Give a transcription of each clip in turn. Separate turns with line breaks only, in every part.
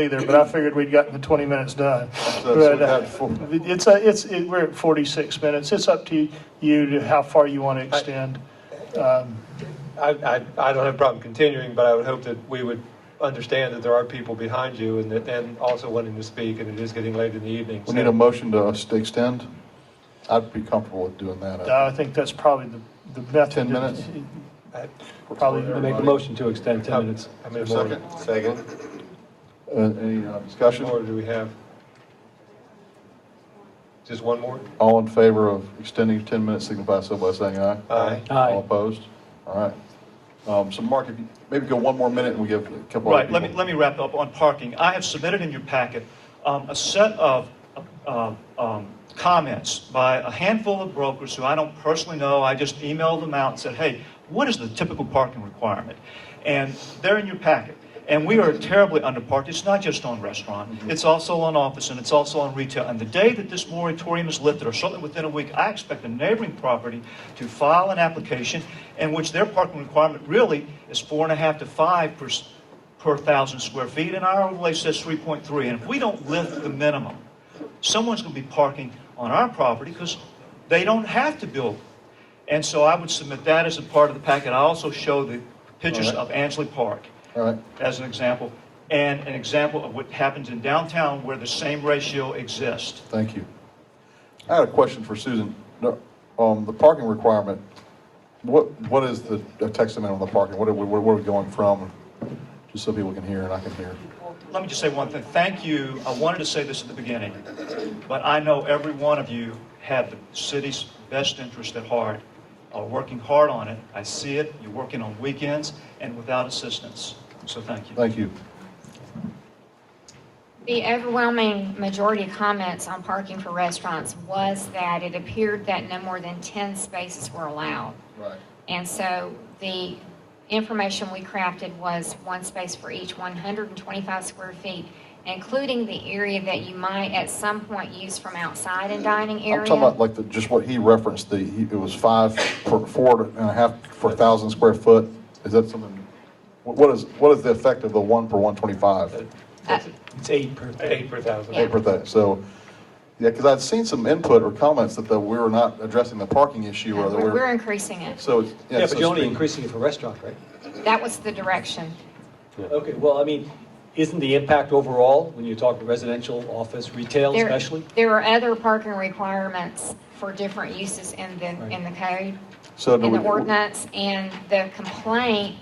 either, but I figured we'd gotten the 20 minutes done.
So that's what
But, uh,
that's for.
It's, a- it's, it- we're at 46 minutes. It's up to you to how far you want to extend. Um,
I, I, I don't have a problem continuing, but I would hope that we would understand that there are people behind you and that, and also wanting to speak, and it is getting late in the evening.
We
so-
need a motion to extend. I'd be comfortable with doing that.
I think that's probably the, the method.
10 minutes?
I-
Probably,
I make a motion to extend 10 minutes.
How many more,
Second? Second. Any uh,
how many
discussion?
more do we have? Just one more?
All in favor of extending 10 minutes, signify so by saying aye.
Aye.
Aye.
All opposed? All right. Um, So Mark, if you maybe go one more minute and we give a couple other
Right,
people.
let me, let me wrap up on parking. I have submitted in your packet um, a set of uh, um, comments by a handful of brokers who I don't personally know. I just emailed them out and said, hey, what is the typical parking requirement? And they're in your packet. And we are terribly underparked. It's not just on restaurant, it's also on office, and it's also on retail. And the day that this moratorium is lifted, or certainly within a week, I expect a neighboring property to file an application in which their parking requirement really is four and a half to five per, per thousand square feet, and our overlay says three point three, and if we don't lift the minimum, someone's gonna be parking on our property, because they don't have to build. And so I would submit that as a part of the packet, I also show the pictures of Ansley Park
All right.
as an example, and an example of what happens in downtown where the same ratio exists.
Thank you. I had a question for Susan. No, um, The parking requirement, what, what is the the text amendment on the parking? What are we, what are we going from? Just so people can hear and I can hear.
Let me just say one thing. Thank you. I wanted to say this at the beginning, but I know every one of you have the city's best interest at heart, are working hard on it. I see it. You're working on weekends and without assistance. So thank you.
Thank you.
The overwhelming majority of comments on parking for restaurants was that it appeared that no more than 10 spaces were allowed.
Right.
And so the information we crafted was one space for each 125 square feet, including the area that you might at some point use from outside and dining
I'm talking about
area.
like the, just what he referenced, the, he- it was five, per- four and a half per thousand square foot. Is that something, what what is, what is the effect of the one per one twenty-five?
Uh,
It's eight per.
Eight per thousand.
Yeah.
Eight per thousand, so, yeah, because I'd seen some input or comments that, that we were not addressing the parking issue or that we
We're we're
we're,
increasing it.
so it's.
Yeah,
so
but you're only
it's-
increasing it for restaurant, right?
That was the direction.
Okay, well, I mean, isn't the impact overall, when you talk residential, office, retail
There-
especially?
There are other parking requirements for different uses in the, in the code.
So do
in
we,
the ordinance, and the complaint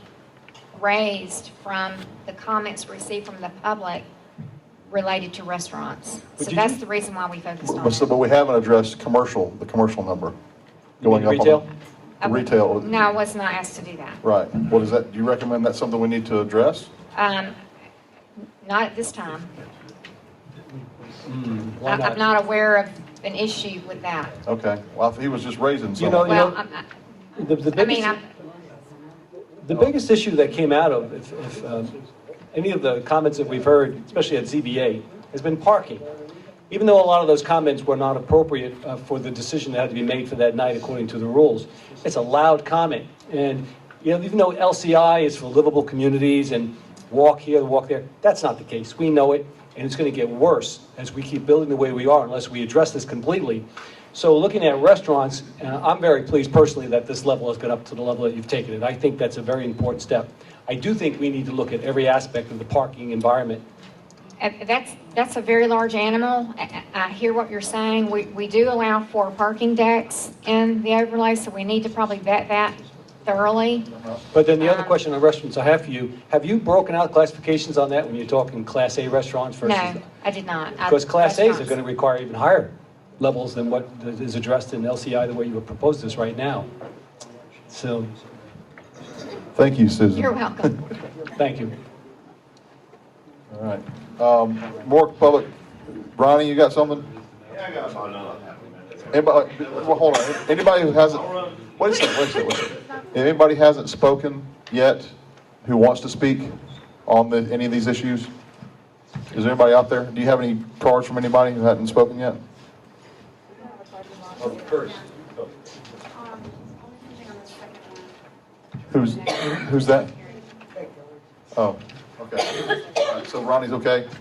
raised from the comments received from the public related to restaurants.
But
So
did
that's
you-
the reason why we focused on
but, so- but
it.
we haven't addressed commercial, the commercial number.
You
going
mean
up on the-
retail?
Uh,
Retail.
No, I was not asked to do that.
Right, what is that, do you recommend that's something we need to address?
Um, Not at this time.
Mm, Why
I- I'm not aware of an issue with that.
Okay, well, he was just raising
You
something.
know,
Well, I'm not-
The- the
I
biggest-
mean, I'm-
The biggest issue that came out of, if, if um, any of the comments that we've heard, especially at ZBA, has been parking. Even though a lot of those comments were not appropriate uh, for the decision that had to be made for that night according to the rules, it's a loud comment. And, you know, even though LCI is for livable communities and walk here, walk there, that's not the case. We know it, and it's going to get worse as we keep building the way we are unless we address this completely. So looking at restaurants, uh, I'm very pleased personally that this level has got up to the level that you've taken it. I think that's a very important step. I do think we need to look at every aspect of the parking environment.
Uh, That's, that's a very large animal. I I- I hear what you're saying. We, we do allow for parking decks in the overlay, so we need to probably vet that thoroughly.
But then the other question on restaurants I have for you, have you broken out classifications on that when you're talking Class A restaurants versus?
No, I did not. I-
Because Class As are
restaurants.
going to require even higher levels than what is addressed in LCI, the way you have proposed this right now. So,
Thank you, Susan.
You're welcome.
thank you.
All right. Um, More public, Ronnie, you got something? Anybody, well, hold on, anybody who hasn't, wait a second, wait a second, wait a second. If Anybody hasn't spoken yet who wants to speak on the, any of these issues? Is there anybody out there? Do you have any cards from anybody who hasn't spoken yet? Who's, who's that? Oh, okay. All right, So Ronnie's okay?